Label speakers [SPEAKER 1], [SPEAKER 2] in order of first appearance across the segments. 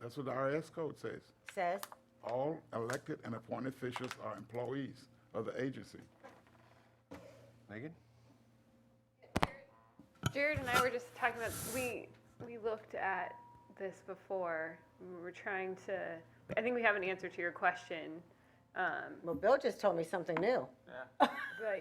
[SPEAKER 1] That's what the IRS code says.
[SPEAKER 2] says,
[SPEAKER 1] All elected and appointed officials are employees of the agency.
[SPEAKER 3] Megan?
[SPEAKER 4] Jared and I were just talking about we we looked at this before. We were trying to. I think we have an answer to your question, um,
[SPEAKER 2] well, Bill just told me something new.
[SPEAKER 4] but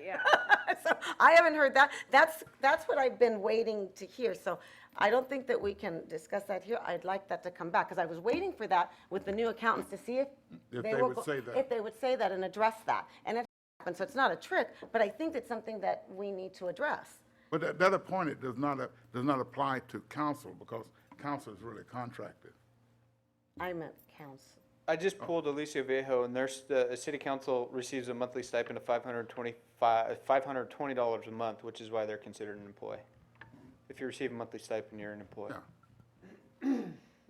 [SPEAKER 4] yeah,
[SPEAKER 2] So I haven't heard that. That's, that's what I've been waiting to hear. So I don't think that we can discuss that here. I'd like that to come back because I was waiting for that with the new accountants to see if.
[SPEAKER 1] If they
[SPEAKER 2] were
[SPEAKER 1] would
[SPEAKER 2] go-
[SPEAKER 1] say that.
[SPEAKER 2] If they would say that and address that. And it happened, so it's not a trick, but I think it's something that we need to address.
[SPEAKER 1] But that, that appointed does not, a- does not apply to council because council is really contracted.
[SPEAKER 2] I meant council.
[SPEAKER 5] I just
[SPEAKER 3] Oh.
[SPEAKER 5] pulled Alicia Viejo, and there's, the city council receives a monthly stipend of five hundred twenty-five, five hundred twenty dollars a month, which is why they're considered an employee. If you receive a monthly stipend, you're an employee.
[SPEAKER 1] Yeah.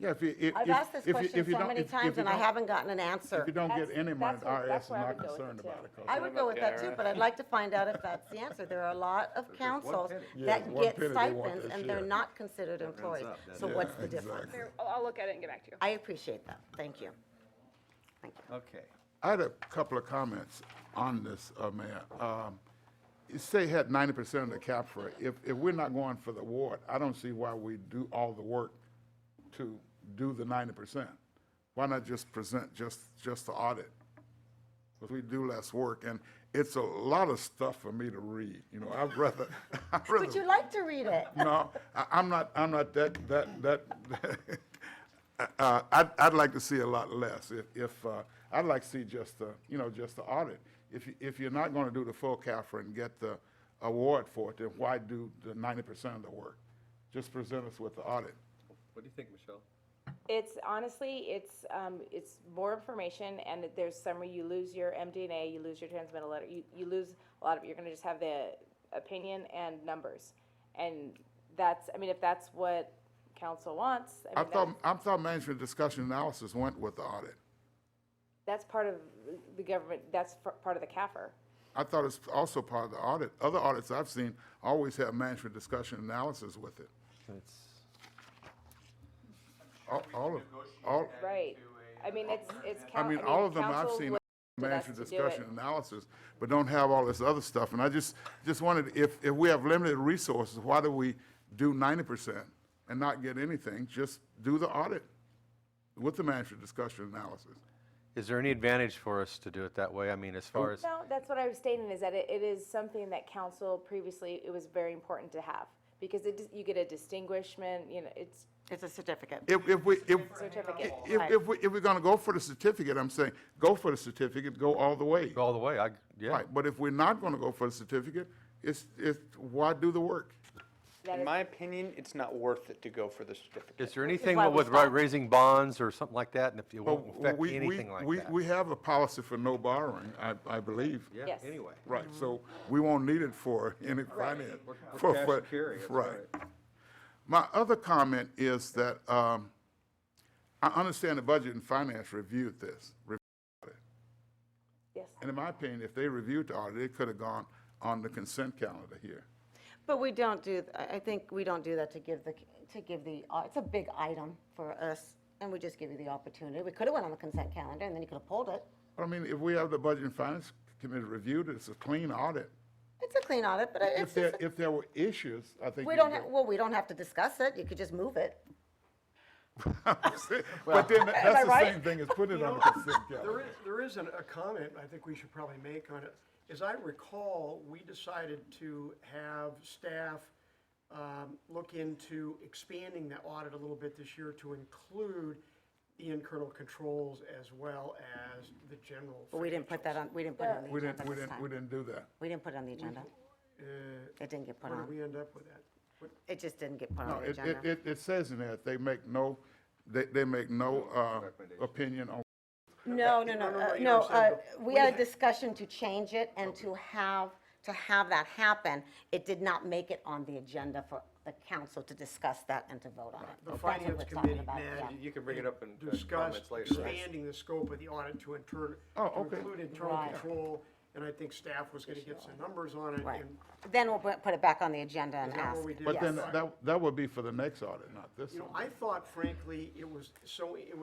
[SPEAKER 1] Yeah, if you, if.
[SPEAKER 2] I've
[SPEAKER 1] if-
[SPEAKER 2] asked this
[SPEAKER 1] if you-
[SPEAKER 2] question
[SPEAKER 1] if you
[SPEAKER 2] so
[SPEAKER 1] don't-
[SPEAKER 2] many
[SPEAKER 1] if- if
[SPEAKER 2] times
[SPEAKER 1] you
[SPEAKER 2] and I
[SPEAKER 1] don't-
[SPEAKER 2] haven't gotten an answer.
[SPEAKER 1] If you don't get
[SPEAKER 6] That's-
[SPEAKER 1] any money,
[SPEAKER 6] that's
[SPEAKER 1] the
[SPEAKER 6] what-
[SPEAKER 1] IRS
[SPEAKER 6] that's
[SPEAKER 1] is
[SPEAKER 6] where I
[SPEAKER 1] not
[SPEAKER 6] would go with
[SPEAKER 1] concerned
[SPEAKER 6] it, too.
[SPEAKER 1] about it. 'cause
[SPEAKER 2] I would go with that too, but I'd like to find out if that's the answer. There are a lot of councils
[SPEAKER 3] penny.
[SPEAKER 1] Yeah,
[SPEAKER 2] that
[SPEAKER 1] there's one
[SPEAKER 2] get
[SPEAKER 1] penny they want
[SPEAKER 2] stipends
[SPEAKER 1] this
[SPEAKER 2] and they're
[SPEAKER 1] year.
[SPEAKER 2] not considered employees.
[SPEAKER 3] up, doesn't
[SPEAKER 2] So
[SPEAKER 1] it?
[SPEAKER 2] what's
[SPEAKER 1] Yeah,
[SPEAKER 2] the difference?
[SPEAKER 1] exactly.
[SPEAKER 4] I'll, I'll look at it and get back to you.
[SPEAKER 2] I appreciate that. Thank you. Thank you.
[SPEAKER 3] Okay.
[SPEAKER 1] I had a couple of comments on this, uh, Mayor. Um, You say had ninety percent of the CAFRA. If, if we're not going for the award, I don't see why we do all the work to do the ninety percent. Why not just present just, just the audit? Because we do less work, and it's a lot of stuff for me to read, you know, I'd rather, I'd rather.
[SPEAKER 2] Would you like to read it?
[SPEAKER 1] No, I, I'm not, I'm not that, that, that, uh, I'd, I'd like to see a lot less. If, if, uh, I'd like to see just the, you know, just the audit. If, you- if you're not gonna do the full CAFRA and get the award for it, then why do the ninety percent of the work? Just present us with the audit.
[SPEAKER 3] What do you think, Michelle?
[SPEAKER 6] It's honestly, it's, um, it's more information and it- there's some where you lose your MDNA, you lose your transmittal letter, you, you lose a lot of, you're gonna just have the opinion and numbers. And that's, I mean, if that's what council wants, I
[SPEAKER 1] I
[SPEAKER 6] mean, that's,
[SPEAKER 1] thought, I thought management discussion analysis went with the audit.
[SPEAKER 6] that's part of the government, that's f- part of the CAFR.
[SPEAKER 1] I thought it's also part of the audit. Other audits I've seen always have management discussion analysis with it.
[SPEAKER 3] That's,
[SPEAKER 1] All, all of, all.
[SPEAKER 6] Right. I mean, it's, it's.
[SPEAKER 1] I
[SPEAKER 6] coun-
[SPEAKER 1] mean, all of them I've
[SPEAKER 6] council
[SPEAKER 1] seen
[SPEAKER 6] would-
[SPEAKER 1] management
[SPEAKER 6] us to do it.
[SPEAKER 1] discussion analysis, but don't have all this other stuff. And I just, just wanted, if, if we have limited resources, why do we do ninety percent and not get anything? Just do the audit with the management discussion analysis.
[SPEAKER 3] is there any advantage for us to do it that way? I mean, as far as,
[SPEAKER 6] No, that's what I was stating, is that it, it is something that council previously, it was very important to have, because it, dis- you get a distinguishment, you know, it's
[SPEAKER 2] It's a certificate.
[SPEAKER 1] If, if we, if,
[SPEAKER 6] certificate.
[SPEAKER 1] if, if we, if we're gonna go for the certificate, I'm saying, go for the certificate, go all the way.
[SPEAKER 3] go all the way, I, yeah.
[SPEAKER 1] Right, but if we're not gonna go for the certificate, it's, it's, why do the work?
[SPEAKER 6] That
[SPEAKER 5] In
[SPEAKER 6] is-
[SPEAKER 5] my opinion, it's not worth it to go for the certificate.
[SPEAKER 3] Is there anything
[SPEAKER 2] why we
[SPEAKER 3] with
[SPEAKER 2] stopped.
[SPEAKER 3] raising bonds or something like that, and if it
[SPEAKER 1] Well,
[SPEAKER 3] won't affect
[SPEAKER 1] we- we-
[SPEAKER 3] anything like
[SPEAKER 1] we-
[SPEAKER 3] that?
[SPEAKER 1] We have a policy for no borrowing, I, I believe.
[SPEAKER 3] Yeah,
[SPEAKER 6] Yes.
[SPEAKER 3] anyway.
[SPEAKER 1] Right,
[SPEAKER 2] Mm-hmm.
[SPEAKER 1] so we won't need it for any finance. for-
[SPEAKER 3] cash
[SPEAKER 1] for-
[SPEAKER 3] and carry, that's
[SPEAKER 1] My other comment is that um, I understand the budget and finance reviewed this. re-
[SPEAKER 6] Yes.
[SPEAKER 1] And in my opinion, if they reviewed the audit, it could have gone on the consent calendar here.
[SPEAKER 2] But we don't do, th- I I think we don't do that to give the, to give the, uh, it's a big item for us, and we just give you the opportunity. We could have went on the consent calendar, and then you could have pulled it.
[SPEAKER 1] But I mean, if we have the budget and finance committee reviewed it, it's a clean audit.
[SPEAKER 2] It's a clean audit, but I- it's
[SPEAKER 1] If there,
[SPEAKER 2] just,
[SPEAKER 1] if there were issues, I think.
[SPEAKER 2] we
[SPEAKER 1] you
[SPEAKER 2] don't,
[SPEAKER 1] could-
[SPEAKER 2] ha- well, we don't have to discuss it. You could just move it.
[SPEAKER 1] But then, that's the same thing as putting it on the consent
[SPEAKER 7] There
[SPEAKER 1] calendar.
[SPEAKER 7] is, there is an- a comment I think we should probably make on it. As I recall, we decided to have staff um, look into expanding the audit a little bit this year to include the internal controls as well as the general.
[SPEAKER 2] But we didn't put that on, we didn't put it on the
[SPEAKER 1] We
[SPEAKER 2] agenda
[SPEAKER 1] didn't, we
[SPEAKER 2] this
[SPEAKER 1] didn't, we
[SPEAKER 2] time.
[SPEAKER 1] didn't do that.
[SPEAKER 2] We didn't put it on the agenda. It didn't get put
[SPEAKER 7] Where did
[SPEAKER 2] on.
[SPEAKER 7] we end up with that? What-
[SPEAKER 2] It just didn't get put
[SPEAKER 1] No,
[SPEAKER 2] on the
[SPEAKER 1] it, it,
[SPEAKER 2] agenda.
[SPEAKER 1] it, it says in there, they make no, they, they make no, uh, opinion on,
[SPEAKER 2] No, no, no,
[SPEAKER 7] no,
[SPEAKER 2] uh,
[SPEAKER 7] you
[SPEAKER 2] no, uh,
[SPEAKER 7] understand,
[SPEAKER 2] we had a discussion to change it and to have, to have that happen. It did not make it on the agenda for the council to discuss that and to vote on it.
[SPEAKER 7] The
[SPEAKER 2] That's what
[SPEAKER 7] finance
[SPEAKER 2] we're talking
[SPEAKER 7] committee
[SPEAKER 2] about,
[SPEAKER 7] met
[SPEAKER 2] yeah.
[SPEAKER 3] You can bring it up in uh,
[SPEAKER 7] discussed
[SPEAKER 3] comments later.
[SPEAKER 7] expanding the scope of the audit to inter,
[SPEAKER 1] Oh,
[SPEAKER 7] to
[SPEAKER 1] okay.
[SPEAKER 7] include internal
[SPEAKER 2] Right.
[SPEAKER 7] control, and I think staff was gonna get some numbers on it,
[SPEAKER 2] Right.
[SPEAKER 7] and
[SPEAKER 2] Then we'll bu- put it back on the agenda and
[SPEAKER 7] that what
[SPEAKER 2] ask.
[SPEAKER 7] we did?
[SPEAKER 1] but then
[SPEAKER 2] Yes.
[SPEAKER 1] that, that would be for the next audit, not this
[SPEAKER 7] You know,
[SPEAKER 1] one.
[SPEAKER 7] I thought frankly, it was so, it